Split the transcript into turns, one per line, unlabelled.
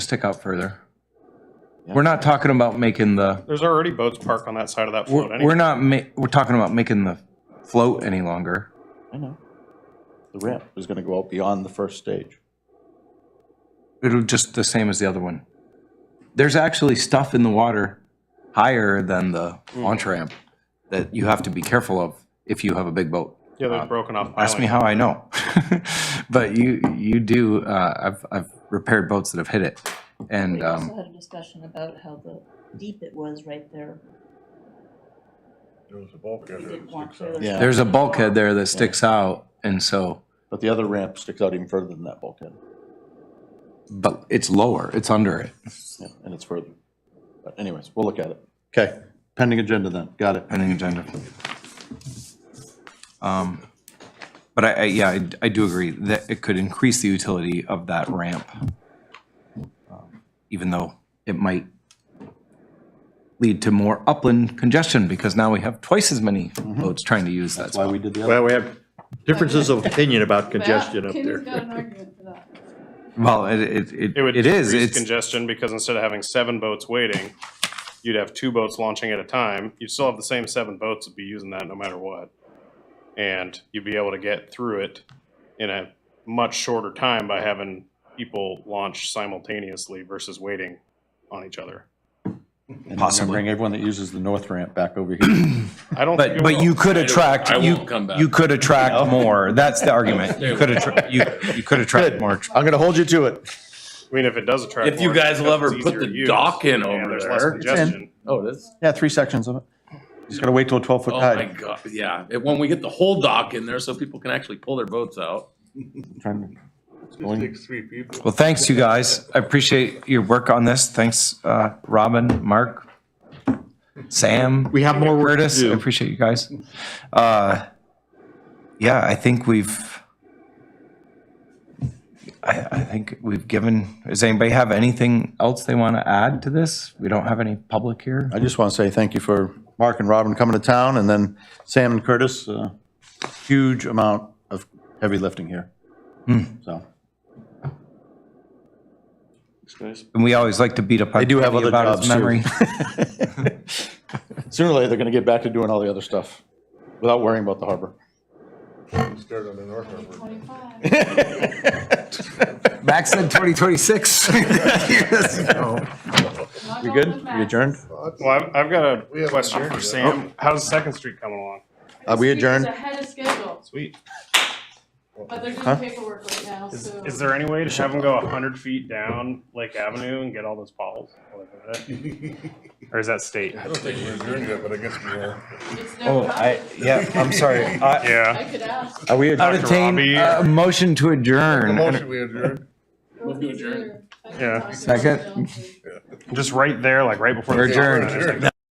stick out further. We're not talking about making the,
There's already boats parked on that side of that
we're,
float
we're
anyway.
not ma, we're talking about making the float any longer.
I know. The ramp is gonna go out beyond the first stage.
It'll just the same as the other one. There's actually stuff in the water higher than the launch ramp that you have to be careful of if you have a big boat.
Yeah, they've broken off
uh, Ask me
islands.
how I know. But you, you do, uh, I've, I've repaired boats that have hit it. And,
We also
um,
had a discussion about how the deep it was right there.
There was a bulkhead
We
that
didn't want
sticks out.
trailers
Yeah.
there's a bulkhead there that sticks out and so,
But the other ramp sticks out even further than that bulkhead,
but it's lower, it's under it.
yeah, and it's further. But anyways, we'll look at it. Okay, pending agenda then, got it.
pending agenda. Um, But I, I- yeah, I- I do agree that it could increase the utility of that ramp, um, even though it might lead to more upland congestion, because now we have twice as many boats trying to use that
Mm-hmm. That's why
spot.
we did the other.
Well, we have differences of opinion about congestion up
Kimmy's got
there.
an argument for that.
Well, it, it- it,
It would
it is,
decrease
it's,
congestion because instead of having seven boats waiting, you'd have two boats launching at a time. You'd still have the same seven boats that'd be using that no matter what. And you'd be able to get through it in a much shorter time by having people launch simultaneously versus waiting on each other.
And we're gonna Bring everyone that uses the north ramp back over here.
I don't think
but,
it
but
will.
you could attract,
I
you,
won't come back.
you could attract more, that's the argument. You could attract, you, you could attract more.
I'm going to hold you to it.
I mean, if it does attract.
If you
more,
guys
because
will ever
it's
put
easier
the
to use,
dock in
and
over
there's
there.
less
It's in.
congestion.
Oh, it is?
Yeah, three sections of it. Just gotta wait till a twelve-foot
Oh, my
tide.
God, yeah. It- When we get the whole dock in there so people can actually pull their boats out.
Trying to-
It takes three people.
Well, thanks, you guys. I appreciate your work on this. Thanks, uh, Robin, Mark, Sam.
We have more work to
Curtis, I
do.
appreciate you guys. Uh, Yeah, I think we've, I, I think we've given, does anybody have anything else they want to add to this? We don't have any public here.
I just want to say thank you for Mark and Robin coming to town, and then Sam and Curtis, uh, huge amount of heavy lifting here.
Hmm.
So,
And we always like to beat up on
They do have
Kenny
other
about his
jobs, too.
memory.
sooner or later, they're gonna get back to doing all the other stuff without worrying about the harbor.
Start on the north harbor.
Max said 2026.
You good? You adjourned?
Well, I've, I've got
We
a
have
question
an
for
idea.
Sam. How's Second Street coming along?
Are we adjourned?
Ahead of schedule,
Sweet.
but they're
Huh?
doing paperwork right now,
Is,
so.
is there any way to have them go hundred feet down Lake Avenue and get all those poles? Or is that state?
I don't think we're doing that, but I guess we are.
It's never
Oh, I,
happened.
yeah, I'm sorry. I-
Yeah.
I could ask.
Are we adjourned?
I'd entertain
Robbie.
a Uh, motion to
The
adjourn.
motion we adjourned.
Move to adjourn.
I can
Yeah.
talk to
Second.
Johnson.
Just right there, like right before.
We're
the-
adjourned.